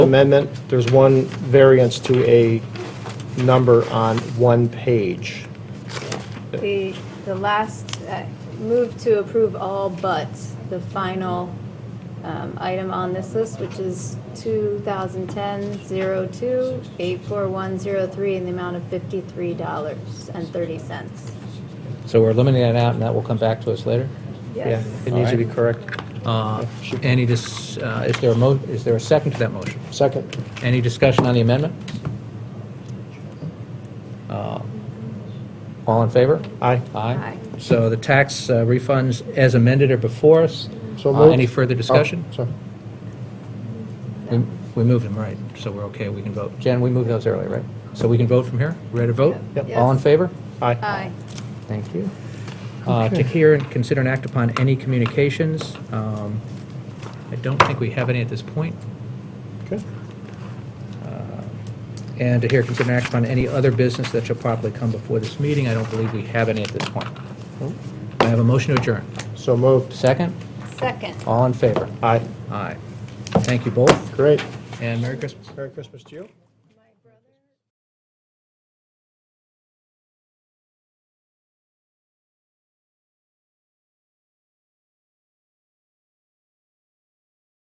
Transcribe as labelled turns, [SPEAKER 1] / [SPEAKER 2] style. [SPEAKER 1] amendment, there's one variance to a number on one page.
[SPEAKER 2] The, the last, uh, move to approve all but the final um, item on this list, which is 2010-02, 84103, in the amount of
[SPEAKER 3] $53.30.
[SPEAKER 4] So we're eliminating that out, and that will come back to us later?
[SPEAKER 1] Yeah,
[SPEAKER 2] Yes.
[SPEAKER 1] It needs to be
[SPEAKER 4] All right.
[SPEAKER 1] correct.
[SPEAKER 4] Uh, Any, dis- uh, is there a mo, is there a second to that motion?
[SPEAKER 1] Second,
[SPEAKER 4] Any discussion on the amendment? Uh, All in favor?
[SPEAKER 1] aye.
[SPEAKER 4] Aye.
[SPEAKER 2] Aye.
[SPEAKER 4] So the tax uh, refunds as amended are before us.
[SPEAKER 1] So
[SPEAKER 4] Uh,
[SPEAKER 1] moved.
[SPEAKER 4] Any further discussion?
[SPEAKER 1] Oh, sorry. Oh.
[SPEAKER 4] We we moved them, right, so we're okay, we can vote. Jen, we moved those earlier, right? So we can vote from here? Ready to vote?
[SPEAKER 1] Yep.
[SPEAKER 4] All in
[SPEAKER 2] Yes.
[SPEAKER 4] favor?
[SPEAKER 1] Aye.
[SPEAKER 2] Aye.
[SPEAKER 4] Thank you. Uh, To hear and consider and act upon any communications. Um, I don't think we have any at this point.
[SPEAKER 1] Okay.
[SPEAKER 4] And to hear, consider and act upon any other business that shall properly come before this meeting. I don't believe we have any at this point.
[SPEAKER 1] Nope.
[SPEAKER 4] I have a motion to adjourn.
[SPEAKER 1] So moved.
[SPEAKER 4] Second,
[SPEAKER 2] Second.
[SPEAKER 4] all in favor?
[SPEAKER 1] Aye.
[SPEAKER 4] Aye. Thank you both,
[SPEAKER 1] Great.
[SPEAKER 4] and Merry Christmas.
[SPEAKER 1] Merry Christmas to you.